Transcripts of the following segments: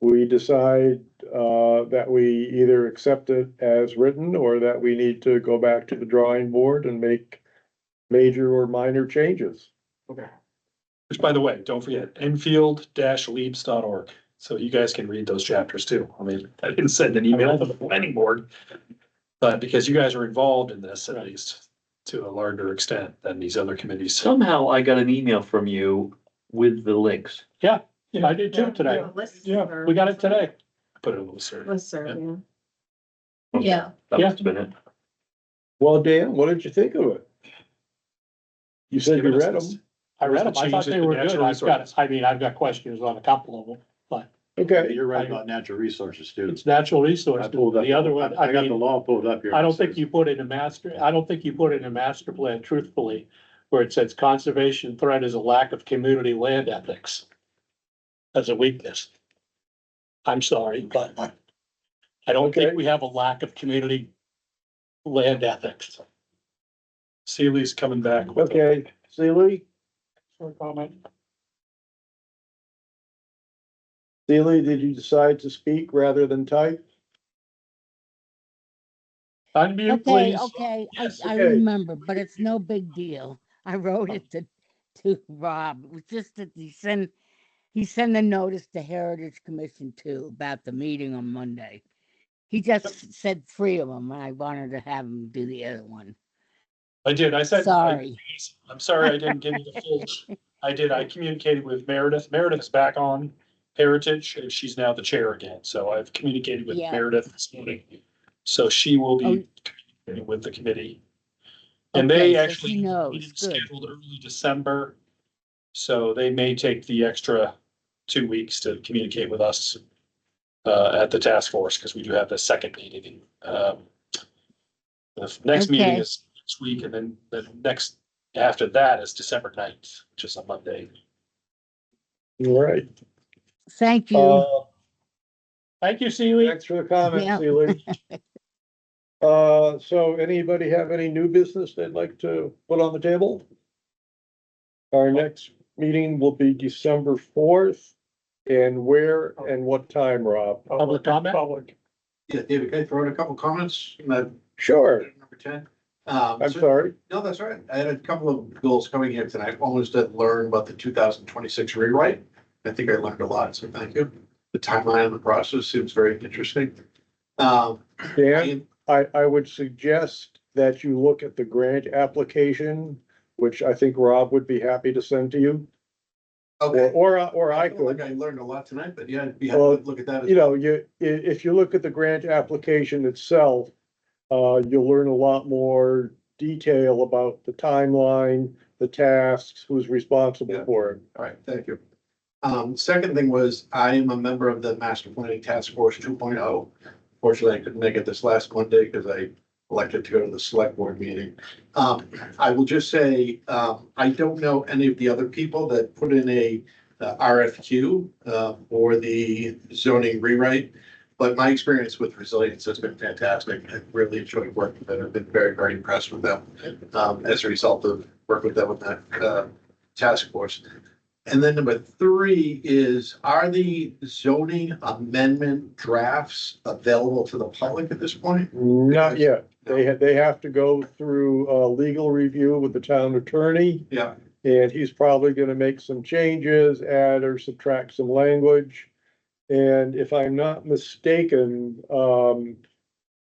we decide uh, that we either accept it as written or that we need to go back to the drawing board and make major or minor changes. Which, by the way, don't forget, enfield-leaps.org. So you guys can read those chapters too. I mean, I didn't send an email to the planning board. But because you guys are involved in this, at least to a larger extent than these other committees. Somehow I got an email from you with the links. Yeah, I did too today. Yeah, we got it today. Put it a little certain. Let's serve, yeah. Yeah, That Yeah. must have been it. Well, Dan, what did you think of it? You said you read them. I read them. Just I thought change it they to were good. natural I've got, resources. I mean, I've got questions on a couple of them. Okay, You're right about natural resources too. It's natural I resources. pulled up- The other one, I I got the mean, law pulled up here. I don't think you put in a master, I don't think you put in a master plan truthfully, where it says conservation threat is a lack of community land ethics. As a weakness. I'm sorry, but I don't Okay. think we have a lack of community land ethics. Sealy's coming back. with a- okay, Sealy, Short comment. Sealy, did you decide to speak rather than type? Unmute, okay, please. okay, I, Yes, I okay. remember, but it's no big deal. I wrote it to, to Rob, it was just that he sent, he sent a notice to Heritage Commission too about the meeting on Monday. He just said three of them, and I wanted to have him do the other one. I did. I said. Sorry. I'm sorry I didn't give you the full, I did, I communicated with Meredith. Meredith's back on Heritage, and she's now the chair again, so I've communicated with Yeah. Meredith this morning. So she will Oh. be communicating with the committee. And they Okay, so she actually. knows. meeting Good. Scheduled early December, so they may take the extra two weeks to communicate with us uh, at the task force, because we do have the second meeting. um, The next meeting Okay. is next week, and then the next after that is December ninth, which is a Monday. All right. Thank you. Uh, Thank you, Seeley. Thanks for the comment, Yeah. Sealy. Uh, so anybody have any new business they'd like to put on the table? Our next meeting will be December fourth. And where and what time, Rob? Public comment? Yeah, David, can I throw in a couple of comments? Uh, Sure, Number ten. Um, I'm so- sorry. No, that's all right. I had a couple of goals coming here tonight. One was to learn about the two thousand twenty-six rewrite. I think I learned a lot, so thank you. The timeline and the process seems very interesting. Um, Dan, and- I, I would suggest that you look at the grant application, which I think Rob would be happy to send to you, or, okay. or, I- or I feel Like could. I learned a lot tonight, but yeah, I'd be Well, happy to look at that. as you know, you, i- if you look at the grant application itself, uh, you'll learn a lot more detail about the timeline, the tasks, who's responsible Yeah. for it. All right, thank you. Um, second thing was, I am a member of the Master Planning Task Force two oh. Fortunately, I couldn't make it this last Monday because I elected to go to the select board meeting. Um, I will just say, um, I don't know any of the other people that put in a uh, RFQ uh, or the zoning rewrite. But my experience with resilience has been fantastic. I've really enjoyed working with them. I've been very, very impressed with them um, as a result of working with them with that uh, task force. And then number three is, are the zoning amendment drafts available to the public at this point? Not yet. They have, they have to go through, uh, legal review with the town attorney. Yeah. And he's probably gonna make some changes, add or subtract some language. And if I'm not mistaken, um,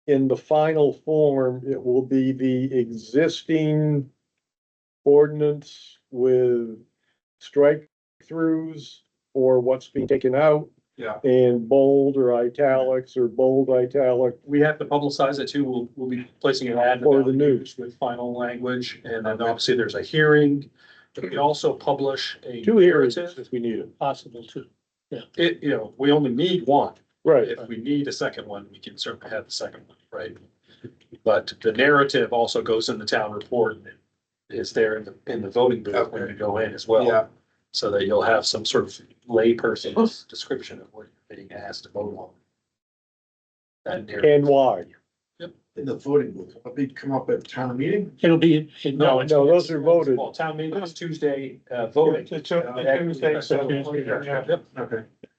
in the final form, it will be the existing ordinance with strike throughs or what's being taken out Yeah. and bold or italics or bold italic. We have to publicize it too. We'll, we'll be placing an ad. For the news. With final language, and then obviously there's a hearing. We also publish a. Two hearings narrative. if we need it. Possible too. It, you know, we only need one. Right. If we need a second one, we can certainly have the second one, right? But the narrative also goes in the town report and is there in the, in the voting booth when you go in as well. Yeah, So that you'll have some sort of layperson's description of what you're being asked to vote on. That narrative. And why? in the voting booth. Will it come up at town meeting? It'll be, it- no, no, those are voted. Well, town meeting is Tuesday, uh, voting. It's a- it's a Tuesday, so- Yep. Okay.